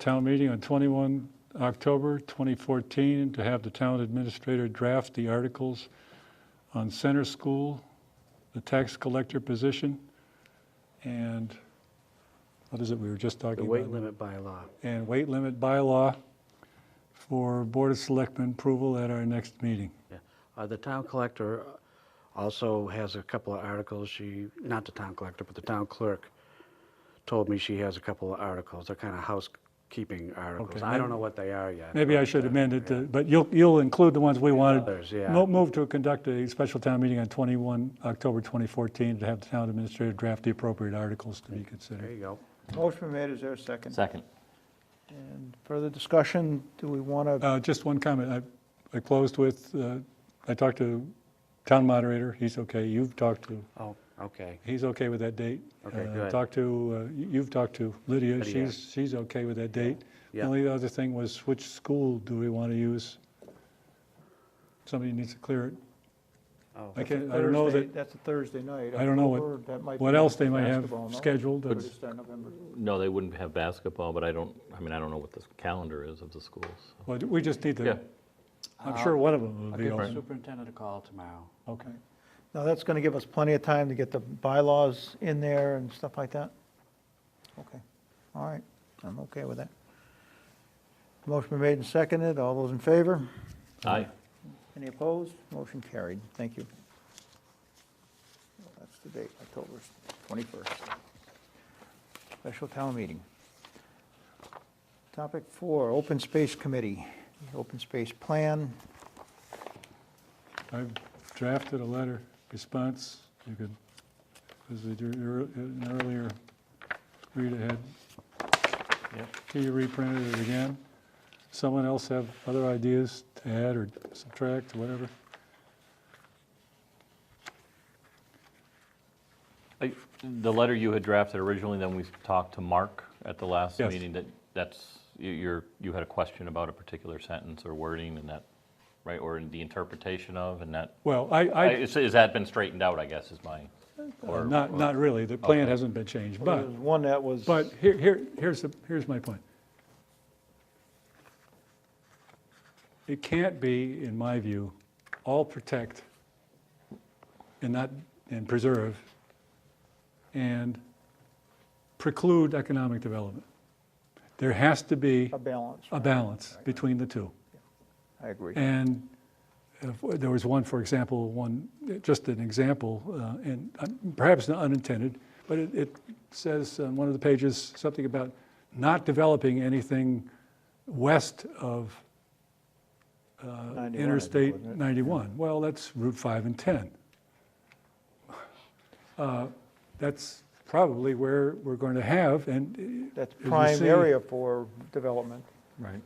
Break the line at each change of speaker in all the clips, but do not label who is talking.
town meeting on 21 October 2014 to have the town administrator draft the articles on center school, the tax collector position, and what is it we were just talking
The
about?
weight limit bylaw.
and weight limit bylaw for Board of Selectmen approval at our next meeting.
Yeah. Uh, The town collector also has a couple of articles she, not the town collector, but the town clerk told me she has a couple of articles. They're kind of housekeeping articles.
Okay,
I don't
maybe-
know what they are yet.
Maybe I
but,
should
uh,
amend it, to- but you'll, you'll include the ones we wanted.
others, yeah.
Mo- Move to conduct a special town meeting on 21 October 2014 to have the town administrator draft the appropriate articles to be
There
considered.
you go.
Motion been made, is there a second?
Second.
And further discussion, do we want to,
Uh, Just one comment, I, I closed with, uh, I talked to town moderator, he's okay, you've talked to,
Oh, okay.
he's okay with that date.
Okay,
Uh,
good.
Talked to, uh, you- you've talked to Lydia,
Lydia.
she's, she's okay with that date. The
Yeah.
Only other thing was, which school do we want to use? Somebody needs to clear it.
Oh,
I can't, I don't know
Thursday-
that,
That's a Thursday night.
I don't know what-
October, that might
what
be
else they might have
basketball, no?
scheduled.
Or
It's-
just start November.
No, they wouldn't have basketball, but I don't, I mean, I don't know what the calendar is of the schools.
well, we just need
Yeah.
to, I'm sure one of them will
I'll
be
give the
open.
superintendent a call tomorrow.
Okay.
Now, that's going to give us plenty of time to get the bylaws in there and stuff like that? Okay, all right, I'm okay with that. Motion been made and seconded, all those in favor?
Aye.
Any opposed? Motion carried, thank you. That's the date, October 21st. Special town meeting. Topic four, Open Space Committee, Open Space Plan.
I've drafted a letter response, you could, as we did ear- an earlier read ahead. Can you reprint it again? Someone else have other ideas to add or subtract, whatever?
I- The letter you had drafted originally, then we talked to Mark at the last
Yes.
meeting, that, that's, you- you're, you had a question about a particular sentence or wording and that, right, or in the interpretation of, and that,
Well, I,
I-
I,
is is that been straightened out, I guess, is my, or?
not,
or-
not really, the plan
Okay.
hasn't been changed,
There
but,
was one that was.
but here, here, here's, the here's my point. It can't be, in my view, all protect and not, and preserve, and preclude economic development. There has to be
A balance,
a balance between the two.
I agree.
And if- there was one, for example, one, just an example, uh, and um, perhaps not unintended, but it, it says on one of the pages something about not developing anything west of uh,
91, I think,
Interstate
wasn't it?
91. Well, that's Route 5 and 10. Uh, That's probably where we're going to have, and. uh,
That's
as you
prime
see-
area for development.
Right.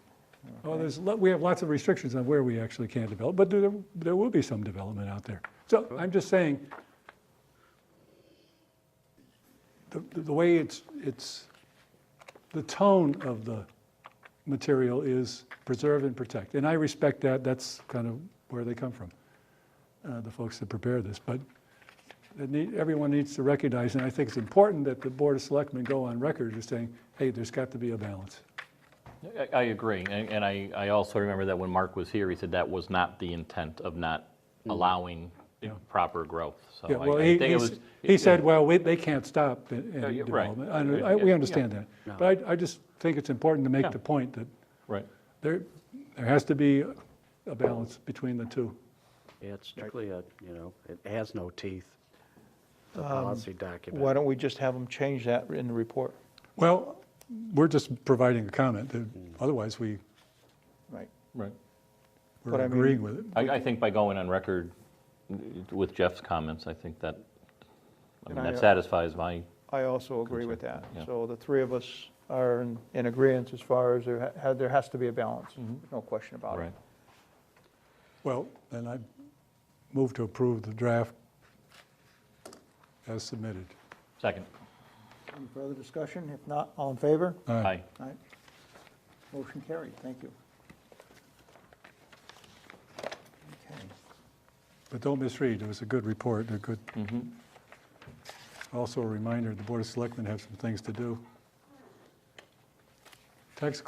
Well, there's, lo- we have lots of restrictions on where we actually can develop, but there, there will be some development out there. So I'm just saying, the, the way it's, it's, the tone of the material is preserve and protect. And I respect that, that's kind of where they come from, uh, the folks that prepare this. But it need, everyone needs to recognize, and I think it's important that the Board of Selectmen go on record as saying, hey, there's got to be a balance.
I- I agree, and and I I also remember that when Mark was here, he said that was not the intent of not allowing proper growth, so
Yeah,
I
well,
I
he,
think it
he
was.
s- he said, well, we- they can't stop i-
Yeah,
any
yeah, right.
development. I under-
Yeah,
I- We
yeah.
understand that.
No.
But I, I just think it's important to make the point that
Right.
there, there has to be a balance between the two.
Yeah, It's strictly a, you know, it has no teeth. The policy document.
Why don't we just have them change that in the report?
Well, we're just providing a comment, that
Hmm.
otherwise we,
Right.
Right.
we're
But I mean-
agreeing with it.
I, I think by going on record with Jeff's comments, I think that, I
And
mean,
I, uh,
that satisfies my,
I also agree with that.
Yeah.
So the three of us are in, in agreement as far as there, ha- there has to be a balance, no question about it.
Mm-hmm. right.
Well, then I move to approve the draft as submitted.
Second.
Any further discussion? If not, all in favor?
Aye.
All right. Motion carried, thank you. Okay.
But don't misread, it was a good report, a good, also a reminder, the Board of Selectmen have some things to do. Tax